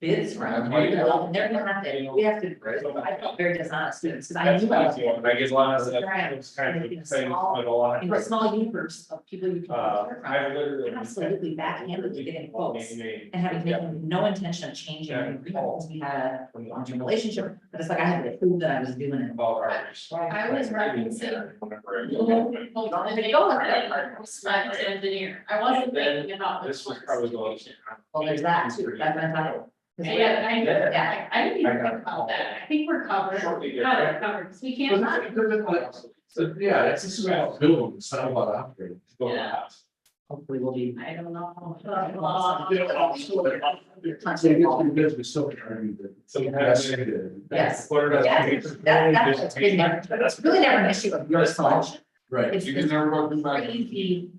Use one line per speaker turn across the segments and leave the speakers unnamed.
bids from,
Right.
they're not, that- we have to, I felt very dishonest, because I
That's
knew.
what
I
I'm
was-
doing, I guess a lot of that,
Right.
it's kind of
Making a
exciting,
small-
but a lot.
In a small universe of people you can.
Uh,
learn from.
I literally.
Absolutely backhanded to getting quotes
Maybe-
And having
Yeah.
made no intention of changing,
Yeah.
our agreement, we had a long-term relationship, but it's like I had to prove that I was doing it.
About our.
I was writing some-
Whenever I-
Hold on, they go with that, I was not an engineer, I wasn't thinking about.
This was probably going.
Well, there's that too, that's what I thought. 'Cause we-
Yeah, I,
Yeah.
yeah, I didn't even think about that, I think we're covered,
Shortly
not
thereafter.
covered, 'cause we
Well,
can't.
not because it's like- So, yeah, it's just about building, it's not about operating.
Yeah.
Hopefully we'll be.
I don't know.
You know,
Uh,
also, but- So you get to be busy, so hard, but-
Sometimes. it-
Yes.
Quarter dozen
Yeah,
pages.
That, that's, it's been never, it's really never an issue of your selection.
Right.
It's
You can never go through
this
my-
crazy,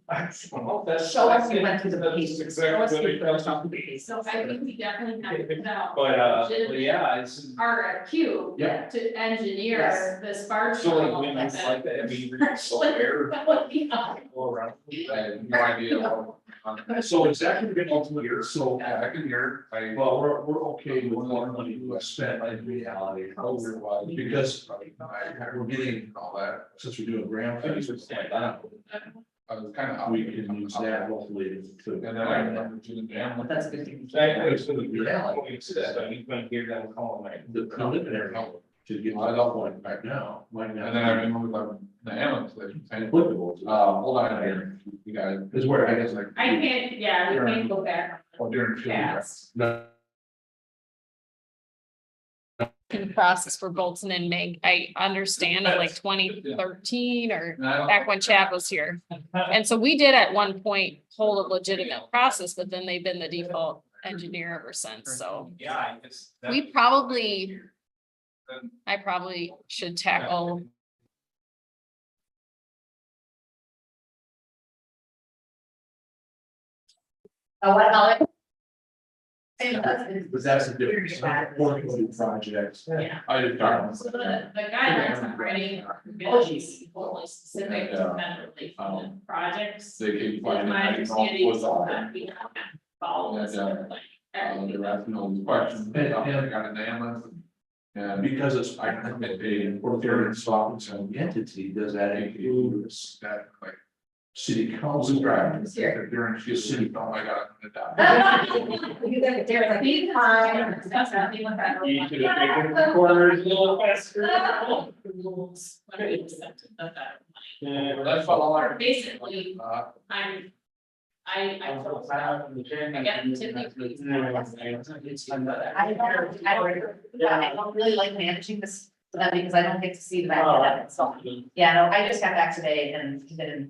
Well, that's-
show us you went through the
that's
pages, show us
Exactly.
you
what it
went
comes
through
down
the
to.
pages.
So I think we definitely have to put out.
But, uh, but
legitimate
yeah, it's.
RFQ.
Yeah.
To
Yes.
engineer this bar
So
chart.
like, when it's like that, I mean, you're so
Actually.
aware,
That would be, uh,
go around, I have no idea. what-
So it's actually been multiple years, so,
Yeah, I can hear, I.
well, we're, we're okay with more money we spent in reality, otherwise, because I- we're getting all that, since we're doing grant things, it's like that.
I was kind of.
We can use that hopefully to.
And then I remember doing the dam.
That's a good thing.
Exactly, so the reality is that, I mean, when here that call like.
The preliminary to get my love one back now, might not.
And then I remember the, the ambulance, like,
And applicable,
uh, hold on, here, you guys,
is where
I
I
guess
guess,
like.
I can't, yeah, we can't go back
Well, during. field prep.
fast.
no,
in process for Bolton and Meg. I understand in like twenty thirteen or
And I don't-
back when Chad was here. And so we did at one point hold a legitimate process, but then they've been the default engineer ever since, so.
Yeah, I guess. that-
We probably, I probably should tackle
Oh, what about it?
But that's a difference. Affordability projects.
Yeah.
I did darn.
So the, the guidelines I'm writing are
Oh, geez.
really only specific to vendor related projects.
They can
It's
find.
my
it, I can help
understanding
with
is
all
that
that.
we don't have to follow this,
Yeah,
like,
Uh,
everything.
They're asking all these questions.
I
And- and-
got an ambulance.
and because it's, I have a, or they're in Scotland's own entity, does that include
That like.
city council? Right.
Sure.
During, she city, oh my god. that- that-
You guys are there, it's like,
These
fine.
times, that's not even federal.
You should have taken the corners a little faster.
Rules, when we accepted the federal
Yeah, that's all I.
money. Basically,
Uh,
I'm, I, I feel bad.
I
Again, typically.
I don't, I don't, I don't really like managing this, uh, because I don't get to see the back end of it, so. Yeah, no, I just got back today and didn't